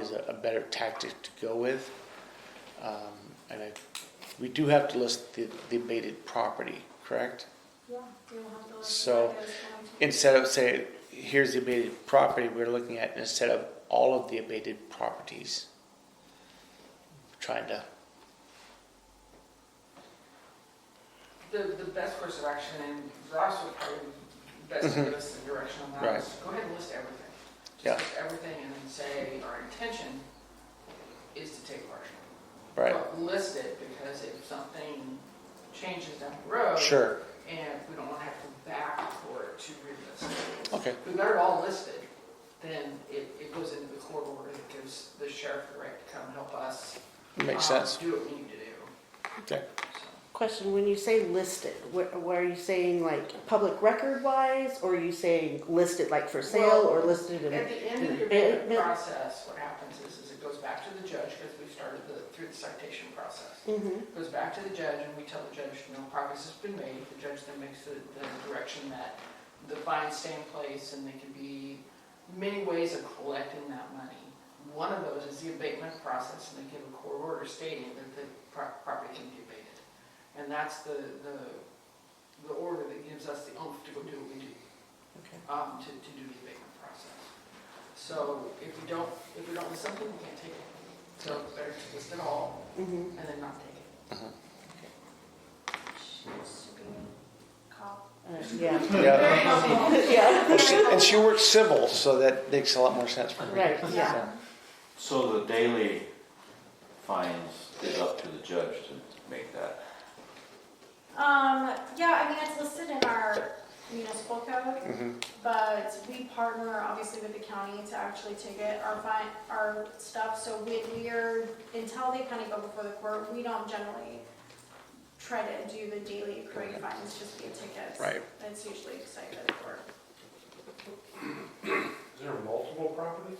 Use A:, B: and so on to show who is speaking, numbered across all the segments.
A: is a a better tactic to go with. Um, And I, we do have to list the the abated property, correct?
B: Yeah, they will have to. let
A: So,
B: you know that it's going to-
A: Instead of say, here's the abated property, we're looking at instead of all of the abated properties. Trying to,
C: The, the best course of action, and Ross would probably best give us the direction on that, is go ahead and list everything. Just
A: Mm-hmm. Yeah.
C: list Everything and then say, our intention is to take partial.
A: right,
C: But List it, because if something changes down the road.
A: sure,
C: And we don't want to have to go back for it to relist.
A: okay,
C: If we got it all listed, then it, it goes into the court order that gives the sheriff the right to come help us.
A: makes
C: um,
A: sense,
C: Do what we need to do.
A: okay.
C: So,
D: Question, when you say listed, what, what are you saying, like, public record wise, or are you saying listed like for sale, or listed
C: At
D: in?
C: the end of your
D: Bit-
C: bid
D: bit-
C: process, what happens is, is it goes back to the judge, because we started the, through the citation process.
D: Mhm.
C: It Goes back to the judge, and we tell the judge, no progress has been made, the judge then makes the, the direction that the fines stay in place, and there can be many ways of collecting that money. One of those is the abatement process, and they give a court order stating that the pro- property can be abated. And that's the, the, the order that gives us the oomph to go do what we do um, to, to do the abatement process. So if we don't, if we don't list something, we can't take it. So it's better to list it all
D: Mhm.
C: and then not take it.
B: She needs to be called.
D: Uh, Yeah,
A: Yeah,
B: Very helpful.
D: yeah,
A: Well, she- and she works civil, so that makes a lot more sense for me.
D: right, yeah.
B: Yeah.
E: So the daily fines is up to the judge to make that.
B: Um, yeah, I mean, it's listed in our municipal code,
A: Mhm.
B: but we partner obviously with the county to actually ticket our fine, our stuff. So when we're, until they kind of go before the court, we don't generally try to do the daily accruing fines just via tickets.
A: Right.
B: It's usually decided by the court.
F: Is there multiple properties?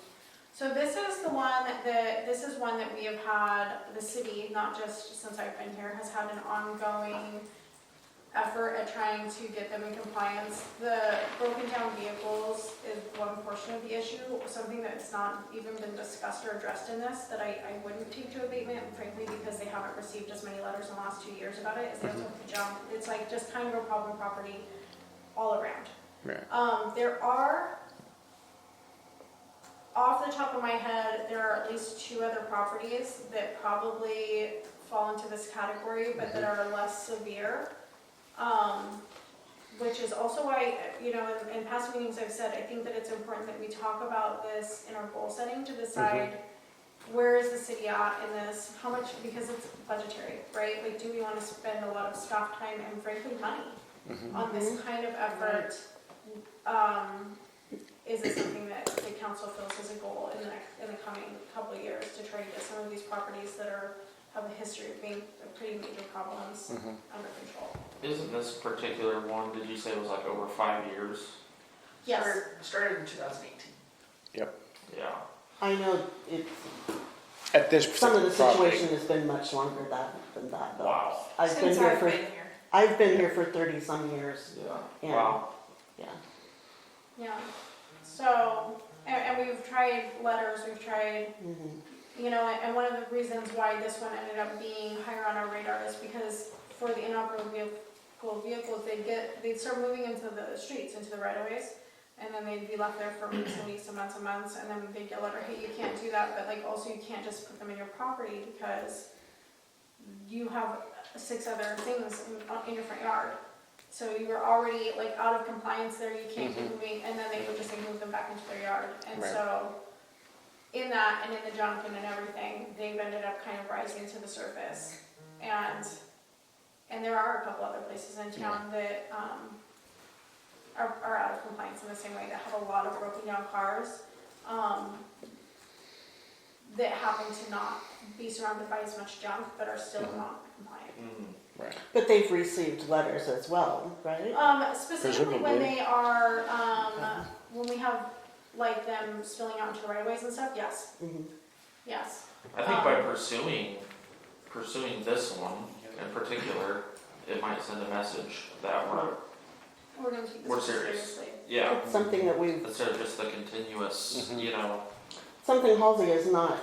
B: So this is the one that, this is one that we have had, the city, not just since I've been here, has had an ongoing effort at trying to get them in compliance. The broken down vehicles is one portion of the issue, something that's not even been discussed or addressed in this, that I, I wouldn't take to abatement, frankly, because they haven't received as many letters in the last two years about it, is they took the jump. It's like just kind of a problem property all around.
A: Right.
B: Um, there are, off the top of my head, there are at least two other properties that probably fall into this category, but that are less severe. Um, which is also why, you know, in, in past meetings, I've said, I think that it's important that we talk about this in our goal setting to decide where is the city at in this, how much, because it's budgetary, right? Like, do we wanna spend a lot of staff time and frankly, money
A: Mhm.
B: on this kind of effort? Um, is it something that the council feels is a goal in the, next- in the coming couple of years to try to get some of these properties that are, have a history of being pretty major problems
D: Mm-hmm.
A: Mhm.
B: under control?
G: Isn't this particular one, did you say was like over five years?
B: Yes,
C: Started- Started in 2018.
G: Yeah.
D: I know it's,
A: At this
D: some of
A: particular
D: the
A: property.
D: situation has been much longer that, than that, though.
G: Wow.
D: I've been
B: since
D: here
B: I've
D: for,
B: been here.
D: I've been here for thirty some years,
G: Yeah.
D: Yeah.
G: Wow.
D: yeah.
B: Yeah, so, and, and we've tried letters, we've tried
D: Mhm.
B: you know, and one of the reasons why this one ended up being higher on our radar is because for the inoperable vehicle vehicles, they'd get, they'd start moving into the streets, into the right of ways. And then they'd be left there for weeks and weeks and months and months, and then they'd get a letter, hey, you can't do that, but like also you can't just put them in your property because you have six other things in, in your front yard. So you were already like out of compliance there, you can't keep moving, and then they would just like move them back into their yard. And
A: Right.
B: so in that and in the Jonathan and everything, they've ended up kind of rising to the surface. And, and there are a couple other places in town that, um, are, are out of compliance in the same way, that have a lot of broken down cars, um, that happen to not be surrounded by as much junk, but are still not compliant.
G: Mm.
D: But they've received letters as well, right?
B: Um, specifically when
A: Presumably.
B: they are, um, when we have, like, them spilling out into right of ways and stuff, yes,
D: Mhm.
B: yes.
G: I think by pursuing, pursuing this one in particular, it might send a message that we're,
B: We're gonna take this
G: We're
B: seriously.
G: serious. yeah,
D: It's something that we've,
G: instead of just the continuous,
A: Mhm.
G: you know,
D: something Halsey is not